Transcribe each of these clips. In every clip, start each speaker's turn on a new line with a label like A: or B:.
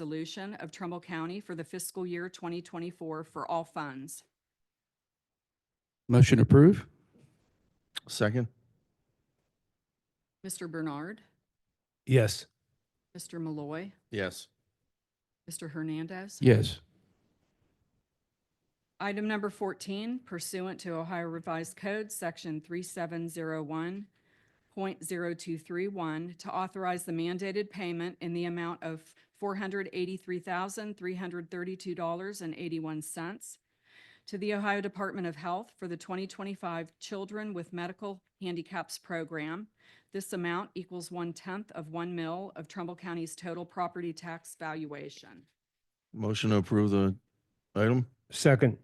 A: resolution of Trumbull County for the fiscal year 2024 for all funds.
B: Motion approve. Second.
A: Mr. Bernard,
C: Yes.
A: Mr. Malloy,
B: Yes.
A: Mr. Hernandez.
B: Yes.
A: Item number 14 pursuant to Ohio Revised Code, Section 3701.0231, to authorize the mandated payment in the amount of $483,332.81 to the Ohio Department of Health for the 2025 Children with Medical Handicaps Program. This amount equals one-tenth of one mil of Trumbull County's total property tax valuation.
B: Motion to approve the item?
C: Second.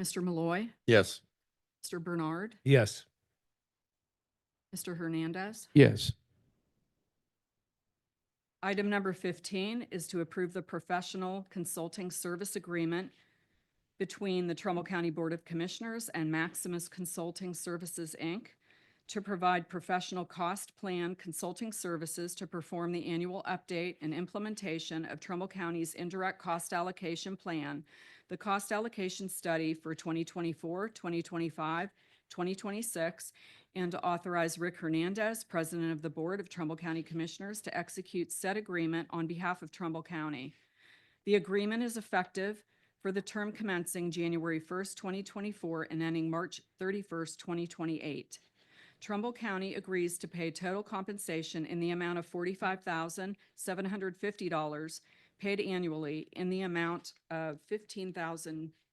A: Mr. Malloy,
B: Yes.
A: Mr. Bernard,
C: Yes.
A: Mr. Hernandez.
B: Yes.
A: Item number 15 is to approve the professional consulting service agreement between the Trumbull County Board of Commissioners and Maximus Consulting Services, Inc. to provide professional cost plan consulting services to perform the annual update and implementation of Trumbull County's indirect cost allocation plan, the cost allocation study for 2024, 2025, 2026, and to authorize Rick Hernandez, President of the Board of Trumbull County Commissioners, to execute said agreement on behalf of Trumbull County. The agreement is effective for the term commencing January 1st, 2024 and ending March 31st, 2028. Trumbull County agrees to pay total compensation in the amount of $45,750 paid annually in the amount of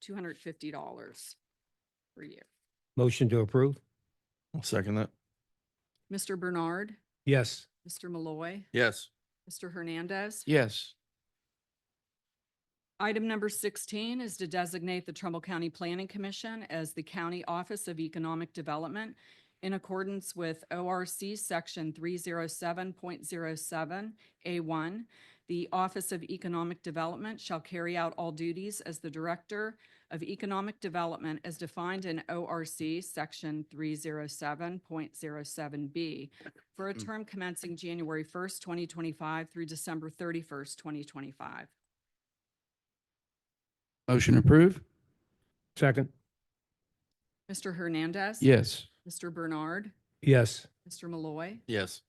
A: $15,250 per year.
C: Motion to approve?
B: I'll second that.
A: Mr. Bernard,
C: Yes.
A: Mr. Malloy.
B: Yes.
A: Mr. Hernandez.
B: Yes.
A: Item number 16 is to designate the Trumbull County Planning Commission as the County Office of Economic Development in accordance with ORC Section 307.07A1. The Office of Economic Development shall carry out all duties as the Director of Economic Development as defined in ORC Section 307.07B for a term commencing January 1st, 2025 through December 31st, 2025.
B: Motion approve?
C: Second.
A: Mr. Hernandez.
B: Yes.
A: Mr. Bernard.
C: Yes.
A: Mr. Malloy.
B: Yes.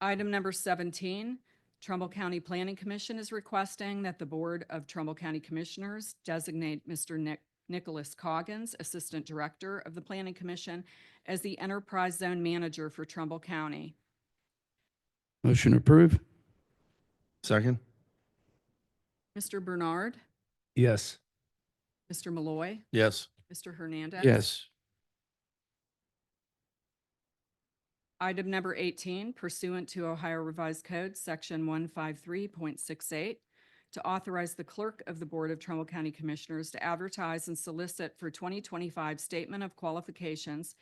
A: Item number 17, Trumbull County Planning Commission is requesting that the Board of Trumbull County Commissioners designate Mr. Nick- Nicholas Coggins, Assistant Director of the Planning Commission, as the Enterprise Zone Manager for Trumbull County.
B: Motion approve? Second?
A: Mr. Bernard.
C: Yes.
A: Mr. Malloy.
B: Yes.
A: Mr. Hernandez.
B: Yes.
A: Item number 18 pursuant to Ohio Revised Code, Section 153.68, to authorize the clerk of the Board of Trumbull County Commissioners to advertise and solicit for 2025 Statement of Qualifications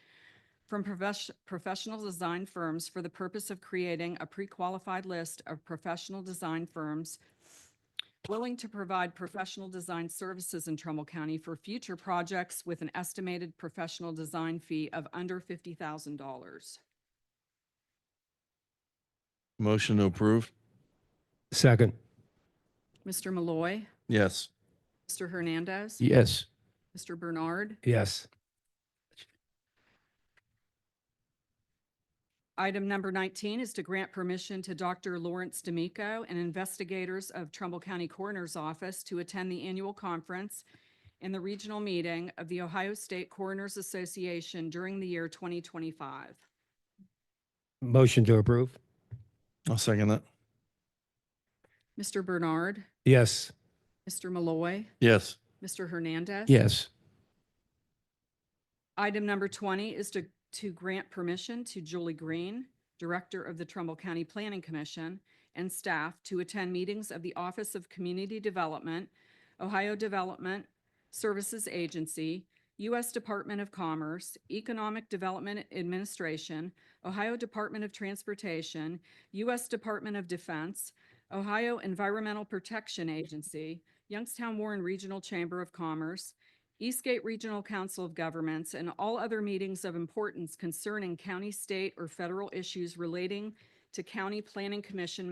A: from profes- professional design firms for the purpose of creating a pre-qualified list of professional design firms willing to provide professional design services in Trumbull County for future projects with an estimated professional design fee of under $50,000.
B: Motion to approve?
C: Second.
A: Mr. Malloy,
B: Yes.
A: Mr. Hernandez,
B: Yes.
A: Mr. Bernard.
C: Yes.
A: Item number 19 is to grant permission to Dr. Lawrence D'Amico and investigators of Trumbull County Coroner's Office to attend the annual conference and the regional meeting of the Ohio State Coroners Association during the year 2025.
C: Motion to approve?
B: I'll second that.
A: Mr. Bernard,
C: Yes.
A: Mr. Malloy,
B: Yes.
A: Mr. Hernandez.
B: Yes.
A: Item number 20 is to, to grant permission to Julie Green, Director of the Trumbull County Planning Commission, and staff to attend meetings of the Office of Community Development, Ohio Development Services Agency, U.S. Department of Commerce, Economic Development Administration, Ohio Department of Transportation, U.S. Department of Defense, Ohio Environmental Protection Agency, Youngstown Warren Regional Chamber of Commerce, Eastgate Regional Council of Governments, and all other meetings of importance concerning county, state, or federal issues relating to County Planning Commission